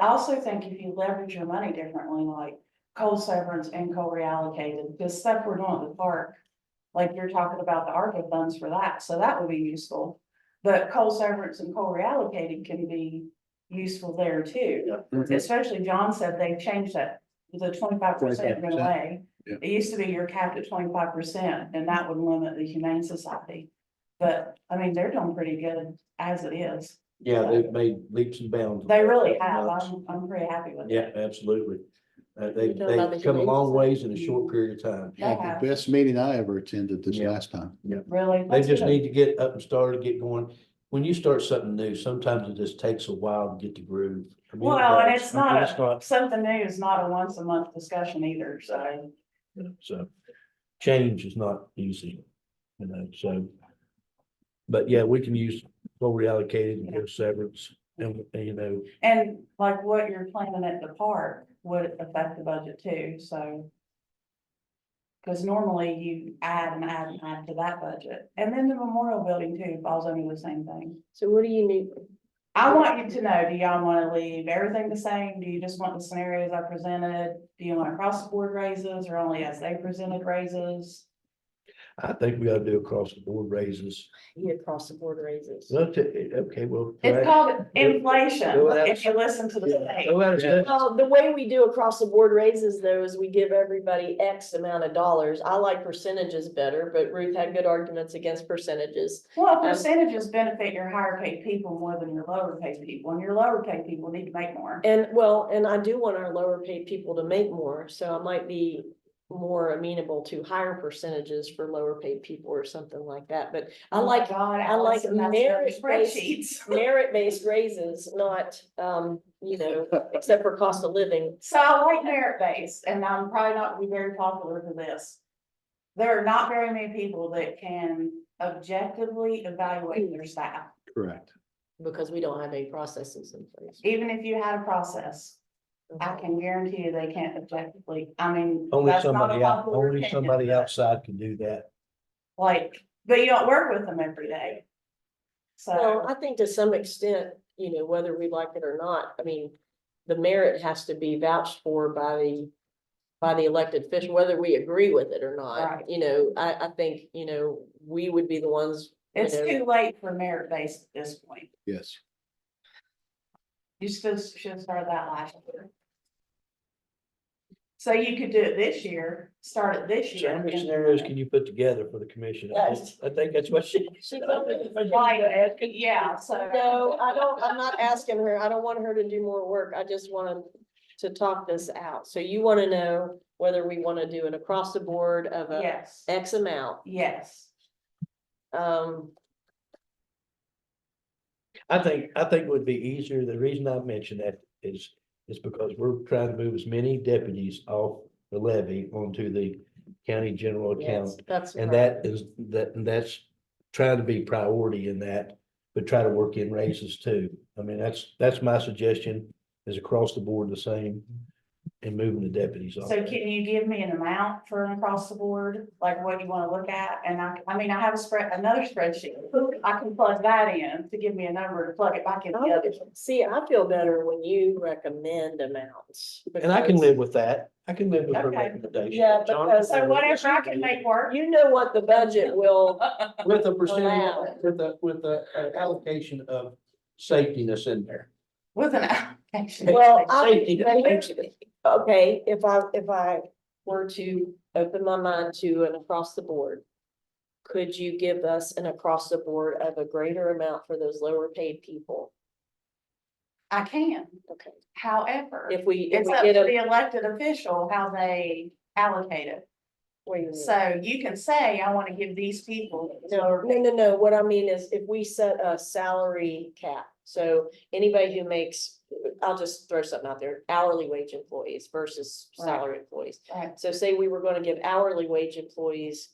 I also think if you leverage your money differently, like coal severance and coal reallocated, this stuff we're doing at the park. Like you're talking about the ARPA funds for that, so that would be useful. But coal severance and coal reallocated can be useful there too. Especially John said they changed that, the twenty-five percent went 25%, away. yeah. It used to be you're capped at twenty-five percent and that would limit the humane society. But, I mean, they're doing pretty good as it is. Yeah, they've made leaps and bounds. They really have. I'm, I'm pretty happy with it. Yeah, absolutely. Uh, You they, know about they've the come a long humane ways in a Mm-hmm. short period of time. They have, The best meeting I ever attended this Yeah. last time. really. They That's just good. need to get up and started, get going. When you start something new, sometimes it just takes a while to get the groove. I mean, it Well, and does. it's I mean, not It's a, not, something new is not a once a month discussion either, so. so change is not easy, you know, so. But yeah, we can use what we allocated and give severance and, you know, And like what you're planning at the park would affect the budget too, so. Cause normally you add and add and add to that budget. And then the memorial building too falls under the same thing. So what do you need? I want you to know, do y'all wanna leave everything the same? Do you just want the scenarios I presented? Do you want across the board raises or only as they presented raises? I think we ought to do across the board raises. You need across the board raises. Well, to- Okay, well. It's right. called inflation, Go without- if you listen to the Yeah. state. Go out of step. Well, the way we do across the board raises though is we give everybody X amount of dollars. I like percentages better, but Ruth had good arguments against percentages. Well, percentages benefit your higher paid people more than your lower paid people, and your lower paid people need to make more. And well, and I do want our lower paid people to make more, so I might be more amenable to higher percentages for lower paid people or something like that, but I like God, I like Allison, that's your merit-based- Spreadsheets. merit-based raises, not, um, you know, except for cost of living. So I like merit-based, and I'm probably not gonna be very popular for this. There are not very many people that can objectively evaluate their staff, Correct. Because we don't have any processes in place. even if you had a process. I can guarantee you they can't objectively, I mean. Only that's not a somebody out, popular only opinion, somebody but- outside can do that. Like, but you don't work with them every day. Well, So, I think to some extent, you know, whether we like it or not, I mean, the merit has to be vouched for by the. By the elected official, whether we agree with it or Right. not, you know, I, I think, you know, we would be the ones. you it's know, too late for merit based at this point. Yes. You still should have started that last year. So you could do it this year, start it this So year. how many and- scenarios can you put together for the commission? I think- I think that's what she. She- Like, yeah, so. No, I don't, I'm not asking her, I don't want her to do more work, I just want to talk this out, so you wanna know whether we wanna do an across the board of a Yes, X amount, yes. um. I think, I think it would be easier. The reason I mentioned that is, is because we're trying to move as many deputies off the levy onto the county general yes, account. That's. And right. that is, that, and that's trying to be priority in that, but try to work in raises too. I mean, that's, that's my suggestion is across the board the same and moving the deputies off. So can you give me an amount for an across the board, like what you wanna look at? And I, I mean, I have a spread, another spreadsheet. I can plug that in to give me a number to plug it back in the I other. would- Oh, See, I feel better when you recommend amounts. And I can because live with that. I can live with her Okay. uh, recommendation. Yeah, John, because- So whatever I can make work. You know what the budget will, With a percentage, Allow. with a, with a uh, allocation of safetiness in there. With an application. well, Safety. I, okay, if I, if I were to open my mind to an across the board. Could you give us an across the board of a greater amount for those lower paid people? I can, Okay, however, if we, if it's we up to get a. the elected official how they allocate it. wait a minute. So you can say, I want to give these people. No, no, no, no, what I mean is if we set a salary cap, so anybody who makes, I'll just throw something out there, hourly wage employees versus Right. salary employees. Right. So say we were gonna give hourly wage employees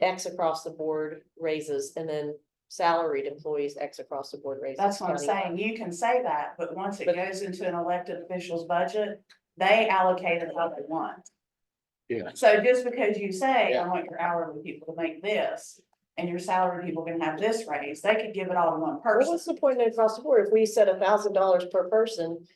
X across the board raises and then salaried employees X across the board raises. That's what I'm countywide. saying. You can say that, but once it But- goes into an elected official's budget, they allocate it how they want. Yeah. So just because you say, I Yeah. want your hourly people to make this and your salary people can have this raise, they could give it all to one What person. was the point of across the board? If we set a thousand dollars per person